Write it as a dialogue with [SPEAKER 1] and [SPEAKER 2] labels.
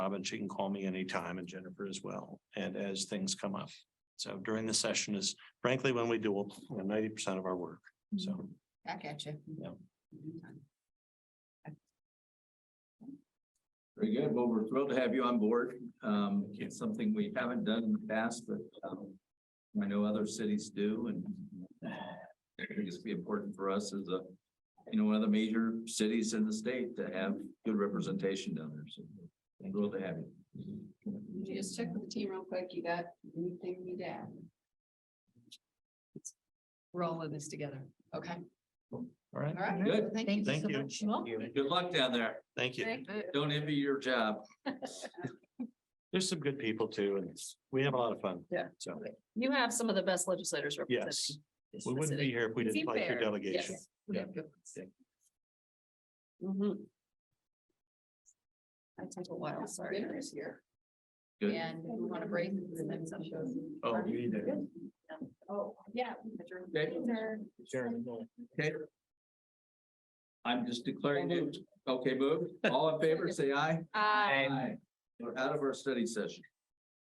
[SPEAKER 1] job and she can call me anytime and Jennifer as well. And as things come up. So during the session is frankly when we do ninety percent of our work. So
[SPEAKER 2] Back at you.
[SPEAKER 1] Yeah.
[SPEAKER 3] Very good. Well, we're thrilled to have you on board. Um, it's something we haven't done in the past, but, um, I know other cities do and I think it's be important for us as a, you know, one of the major cities in the state to have good representation down there. So we're thrilled to have you.
[SPEAKER 2] You Just check with the team real quick. You got anything you need to add? We're all in this together. Okay,
[SPEAKER 1] all right,
[SPEAKER 2] all right.
[SPEAKER 3] Good.
[SPEAKER 2] Thank you.
[SPEAKER 1] Thank you.
[SPEAKER 2] Well,
[SPEAKER 3] Good luck down there.
[SPEAKER 1] thank you.
[SPEAKER 3] Don't envy your job.
[SPEAKER 1] There's some good people too, and we have a lot of fun.
[SPEAKER 4] Yeah.
[SPEAKER 1] So
[SPEAKER 4] You have some of the best legislators representing.
[SPEAKER 1] yes,
[SPEAKER 4] this
[SPEAKER 1] we wouldn't be
[SPEAKER 4] city.
[SPEAKER 1] here if we
[SPEAKER 4] It's
[SPEAKER 1] didn't like your
[SPEAKER 4] fair.
[SPEAKER 1] delegation.
[SPEAKER 4] Yes, we have good ones. Mhm. I took a while, sorry.
[SPEAKER 2] Dinner is here.
[SPEAKER 3] Good.
[SPEAKER 2] And we want to break and then some shows.
[SPEAKER 3] Oh, you need to.
[SPEAKER 2] Oh, yeah.
[SPEAKER 3] Okay. Okay. I'm just declaring it. Okay, moved. All in favor, say aye.
[SPEAKER 4] Uh,
[SPEAKER 3] Aye. We're out of our study session.